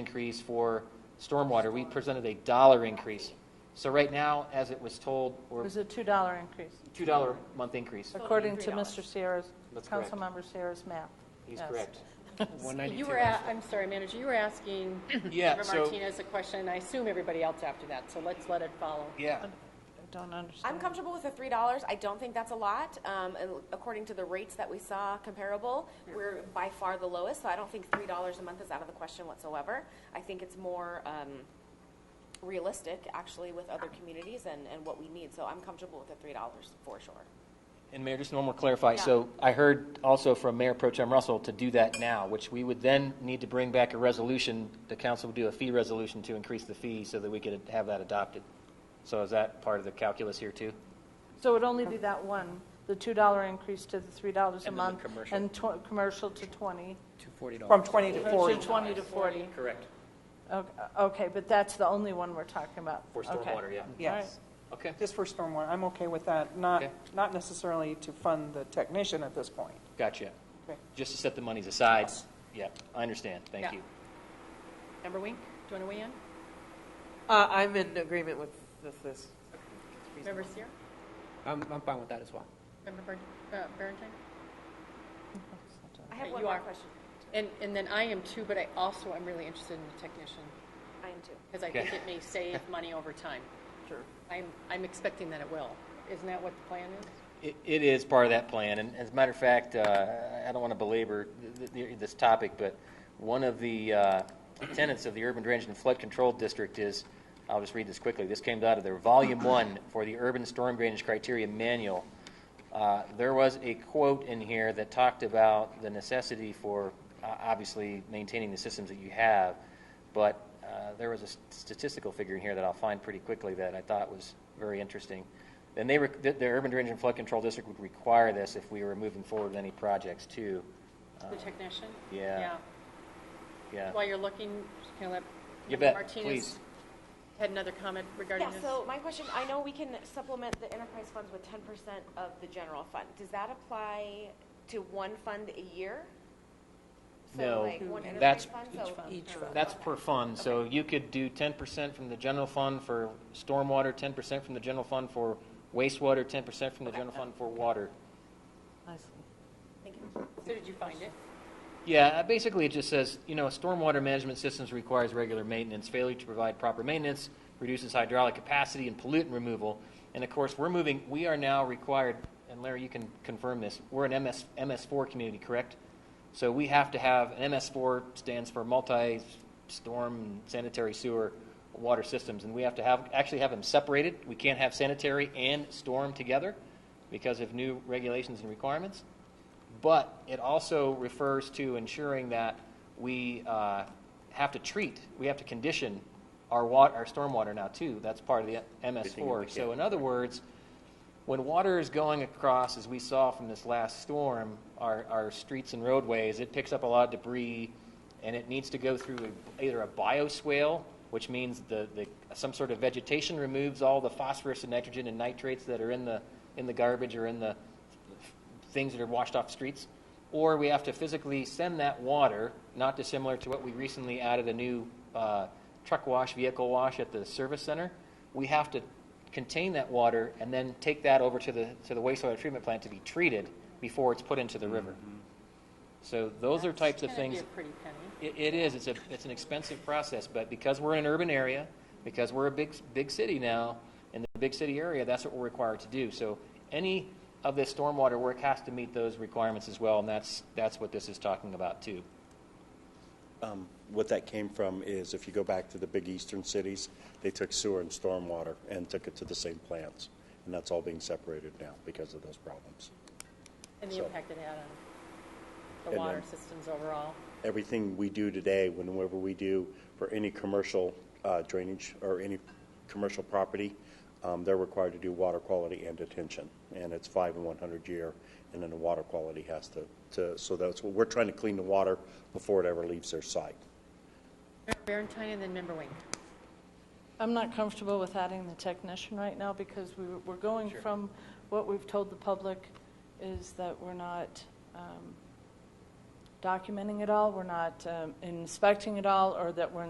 increase for stormwater, we presented a dollar increase. So right now, as it was told, It we're was a $2 increase, two dollar a month increase. according to Mr. Sierra's, That's correct. Councilmember Sierra's map. He's Yes. correct. One You ninety-two. were, a- I'm sorry, Manager, you were asking Yeah, Member so- Martinez a question, and I assume everybody else after that, so let's let it follow. Yeah, I don't I'm understand. comfortable with the three dollars. I don't think that's a lot. Um, and according to the rates that we saw comparable, we're by far the lowest, so I don't think three dollars a month is out of the question whatsoever. I think it's more, um, realistic, actually, with other communities and, and what we need, so I'm comfortable with the three dollars for sure. and Mayor, just one more clarify, Yeah. so I heard also from Mayor Pro Tem Russell to do that now, which we would then need to bring back a resolution, the council would do a fee resolution to increase the fee so that we could have that adopted. So is that part of the calculus here too? So it would only be that one, the $2 increase to the $3 a And then the month. commercial. And tw- commercial to 20. Two forty From 20 to or 40. To 20 to 40. Correct, Okay- Okay, but that's the only one we're talking about. for Okay. stormwater, yeah. Yes, Okay, just for stormwater, I'm okay with that, not, Okay. not necessarily to fund the technician at this point. gotcha. Okay. Just to set the monies aside, yeah, I understand, thank Yeah. you. Member Wink, do you want to weigh in? Uh, I'm in agreement with with this. Member Seer? I'm, I'm fine with that as well. Member Ber- uh, Berentine? I have Okay, one you more are. question. And, and then I am too, but I also am really interested in the technician, I am too. because I Okay. think it may save money over time. Sure. I'm, I'm expecting that it will. Isn't that what the plan is? It it is part of that plan, and as a matter of fact, uh, I don't want to belabor th- th- this topic, but one of the uh, tenets of the Urban Drainage and Flood Control District is, I'll just read this quickly, this came out of their Volume 1 for the Urban Storm Drainage Criteria Manual. Uh, There was a quote in here that talked about the necessity for, uh, obviously, maintaining the systems that you have, but uh, there was a s- statistical figure in here that I'll find pretty quickly that I thought was very interesting. And they, rec- the the Urban Drainage and Flood Control District would require this if we were moving forward with any projects too. The technician? Uh, yeah. Yeah, Yeah. While you're looking, can I let? You Member bet, Martinez please. had another comment regarding Yeah, this? so my question, I know we can supplement the enterprise funds with ten percent of the general fund. Does that apply to one fund a year? So, No, like, one that's- enterprise fund, so- Each fund. That's per fund, so you could do ten percent from the general fund for stormwater, ten percent from the general fund for wastewater, ten percent from the general fund for water. I see. Thank you. So did you find it? Yeah, uh, basically it just says, you know, stormwater management systems requires regular maintenance. Failure to provide proper maintenance reduces hydraulic capacity and pollutant removal. And of course, we're moving, we are now required, and Larry, you can confirm this, we're an MS, MS4 community, correct? So we have to have, an MS4 stands for multi-storm sanitary sewer water systems, and we have to have, actually have them separated. We can't have sanitary and storm together because of new regulations and requirements. But it also refers to ensuring that we uh, have to treat, we have to condition our wa, our stormwater now too. That's part of the MS4. So in other words, when water is going across, as we saw from this last storm, our, our streets and roadways, it picks up a lot of debris, and it needs to go through a- either a bioswale, which means the, the, some sort of vegetation removes all the phosphorus and nitrogen and nitrates that are in the, in the garbage or in the things that are washed off streets, or we have to physically send that water, not dissimilar to what we recently added a new uh, truck wash, vehicle wash at the service center. We have to contain that water and then take that over to the to the wastewater treatment plant to be treated before it's put into the river. So those are types of It's gonna things. be a pretty penny. It, it is. It's a, it's an expensive process, but because we're in an urban area, because we're a big, big city now, in the big city area, that's what we're required to do. So any of this stormwater work has to meet those requirements as well, and that's, that's what this is talking about too. What that came from is if you go back to the big eastern cities, they took sewer and stormwater and took it to the same plants. And that's all being separated now because of those problems. And the So- impact it had on the And water then- systems overall. Everything we do today, whenever we do for any commercial uh, drainage or any commercial property, um, they're required to do water quality and detention. And it's five and 100 year, and then the water quality has to, to, so that's what, we're trying to clean the water before it ever leaves their site. Member Berantine and then Member Wink. I'm not comfortable with adding the technician right now because we, we're going from what we've told the public is that we're not um, documenting it all, we're not um, inspecting it all, or that we're